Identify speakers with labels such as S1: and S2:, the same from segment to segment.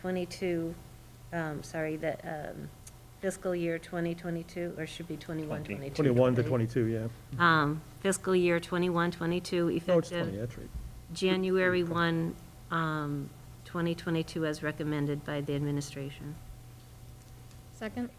S1: 22, um, sorry, the um, fiscal year 2022, or should be 21, 22.
S2: 21 to 22, yeah.
S1: Um, Fiscal year 21, 22,
S2: No, it's 20,
S1: effective
S2: that's right.
S1: January 1, um, 2022, as recommended by the administration.
S3: Second?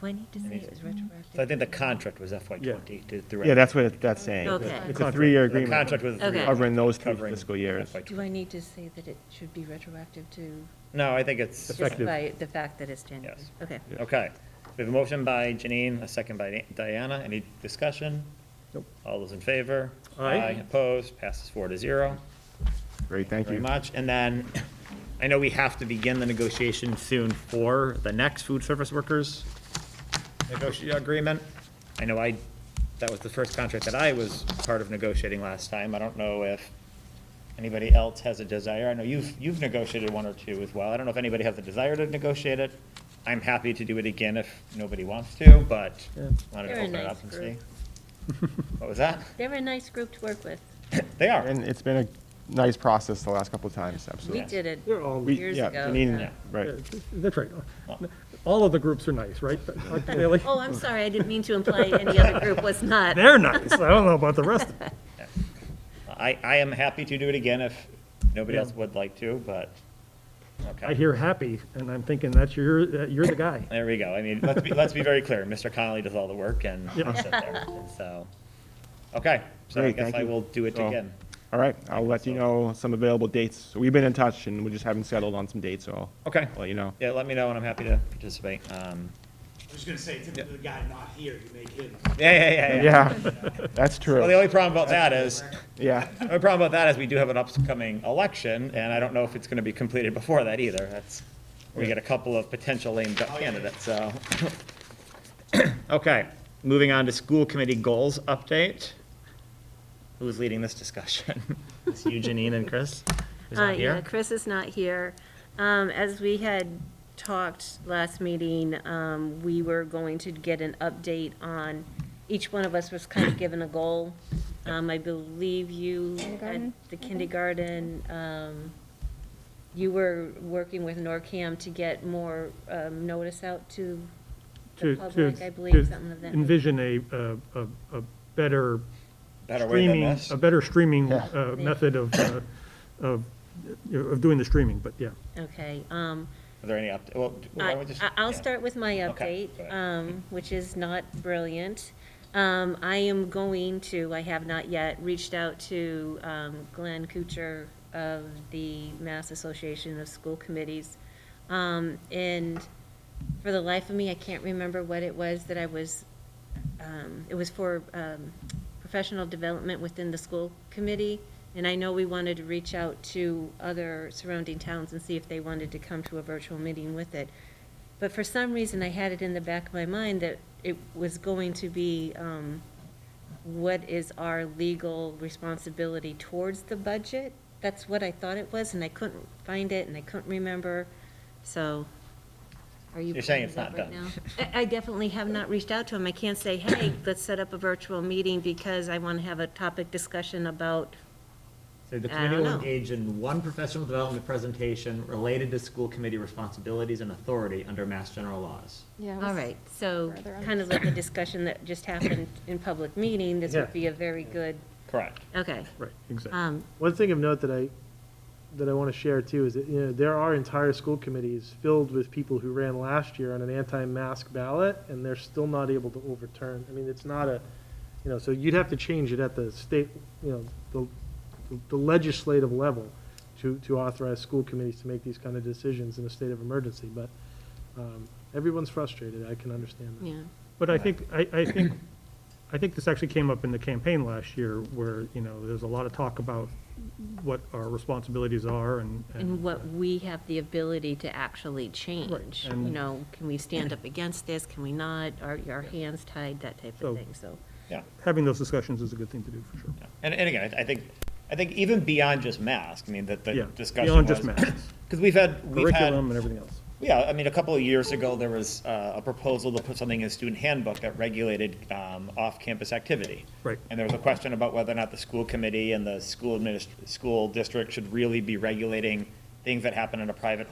S1: Do I need to say it was retroactive?
S4: So I think the contract was FY
S2: Yeah.
S4: twenty to direct.
S5: Yeah, that's what that's saying.
S1: Okay.
S5: It's a three-year
S4: The
S5: agreement.
S4: contract was.
S1: Okay.
S5: Covering those two
S4: covering
S5: fiscal years.
S4: FY
S1: Do I need to say that it should be retroactive to,
S4: No, I think it's,
S2: The
S1: just
S2: Effective.
S1: by the fact that it's January?
S4: Yes.
S1: Okay.
S4: okay. We have a motion by Janine, a second by Di- Diana. Any discussion?
S2: Nope.
S4: All those in favor?
S2: Aye.
S4: Opposed? Passes four to zero.
S5: Great, thank
S4: Very
S5: you.
S4: much. And then, I know we have to begin the negotiation soon for the next food service workers negotiate agreement. I know I, that was the first contract that I was part of negotiating last time. I don't know if anybody else has a desire. I know you've, you've negotiated one or two as well. I don't know if anybody has a desire to negotiate it. I'm happy to do it again if nobody wants to, but
S2: Yeah.
S4: wanted
S1: They're
S4: to
S1: a
S4: open it
S1: nice
S4: up and see.
S1: group.
S4: What was that?
S1: They're a nice group to work with.
S4: They are.
S5: And it's been a nice process the last couple of times,
S1: We
S5: absolutely.
S1: did it
S2: They're all,
S5: We-
S1: years
S5: yeah, Janine,
S1: ago.
S4: Yeah.
S5: Right.
S2: that's right. All of the groups are nice, right? Aren't they, like-
S1: Oh, I'm sorry, I didn't mean to imply any other group was not.
S2: They're nice. I don't know about the rest. of them.
S4: I, I am happy to do it again if nobody else would like to, but, okay.
S2: I hear happy, and I'm thinking that's your, that you're the guy.
S4: There we go. I mean, let's be, let's be very clear. Mr. Connolly does all the work and I sit there. And so, okay. So I
S5: Great,
S4: guess
S5: thank
S4: I
S5: you.
S4: will do it
S5: So-
S4: again.
S5: All right, I'll let you know some available dates. So We've been in touch and we just haven't settled on some dates, so I'll
S4: Okay.
S5: let you know.
S4: Yeah, let me know and I'm happy to participate. Um,
S6: I was gonna say, to the guy not here, you make him.
S4: yeah, yeah, yeah, yeah.
S5: Yeah, that's
S4: Well, the
S5: true.
S4: only problem about that is,
S5: Yeah,
S4: the only problem about that is we do have an upcoming election and I don't know if it's going to be completed before that either. That's, we get a couple of potential lame duck candidates, so. Okay, moving on to school committee goals update. Who's leading this discussion? It's you, Janine and Chris? Who's
S1: Uh,
S4: not
S1: yeah,
S4: here?
S1: Chris is not here. Um, as we had talked last meeting, um, we were going to get an update on, each one of us was kind of given a goal. Um, I believe you, at
S3: Kindergarten,
S1: the kindergarten, um, you were working with NORCAM to get more, um, notice out to the
S2: To-
S1: public,
S2: to-
S1: I
S2: to
S1: believe, something of that. nature.
S2: Envision a, a, a- a better
S4: Better way than
S2: streaming,
S4: this?
S2: a better streaming
S5: Yeah.
S2: uh, method of, uh, of, you know, of doing the streaming, but yeah.
S1: Okay, um,
S4: Are there any updates? Well, d- why
S1: I-
S4: don't we just?
S1: I- I'll
S4: yeah.
S1: start with my
S4: Okay,
S1: update,
S4: go ahead.
S1: um, which is not brilliant. Um, I am going to, I have not yet, reached out to um, Glenn Kuchar of the Mass Association of School Committees. Um, And for the life of me, I can't remember what it was that I was, um, it was for um, professional development within the school committee. And I know we wanted to reach out to other surrounding towns and see if they wanted to come to a virtual meeting with it. But for some reason, I had it in the back of my mind that it was going to be, um, what is our legal responsibility towards the budget? That's what I thought it was, and I couldn't find it, and I couldn't remember, so are you?
S4: You're saying
S1: pulling
S4: it's
S1: it up
S4: not
S1: right
S4: done.
S1: now? I, I definitely have not reached out to him. I can't say, hey, let's set up a virtual meeting because I want to have a topic discussion about,
S4: So the
S1: I
S4: committee will
S1: don't know.
S4: engage in one professional development presentation related to school committee responsibilities and authority under Mass General laws.
S3: Yeah.
S1: all right, so
S3: Further on.
S1: kind of like the discussion that just happened in public meeting, this
S7: Yeah.
S1: would be a very good,
S4: Correct.
S1: okay.
S2: Right, exactly.
S1: Um,
S7: One thing of note that I, that I want to share too is that, you know, there are entire school committees filled with people who ran last year on an anti-mask ballot and they're still not able to overturn. I mean, it's not a, you know, so you'd have to change it at the state, you know, the, the legislative level to, to authorize school committees to make these kind of decisions in a state of emergency, but, um, everyone's frustrated. I can understand that.
S1: yeah.
S2: But I think, I, I think, I think this actually came up in the campaign last year where, you know, there's a lot of talk about what our responsibilities are and.
S4: Mm-hmm.
S1: And what we have the ability to actually change, you
S2: and-
S1: know, can we stand up against this, can we not, are our hands tied, that type of
S2: So-
S1: thing, so.
S4: Yeah.
S2: Having those discussions is a good thing to do, for sure.
S4: And, and again, I- I think, I think even beyond just masks, I mean, that the
S2: Yeah,
S4: discussion
S2: beyond just
S4: was-
S2: masks.
S4: Because we've had, we've had.
S2: Curriculum and everything else.
S4: Yeah, I mean, a couple of years ago, there was uh, a proposal to put something in the student handbook that regulated um, off-campus activity.
S2: Right.
S4: And there was a question about whether or not the school committee and the school adminis, school district should really be regulating things that happen in a private home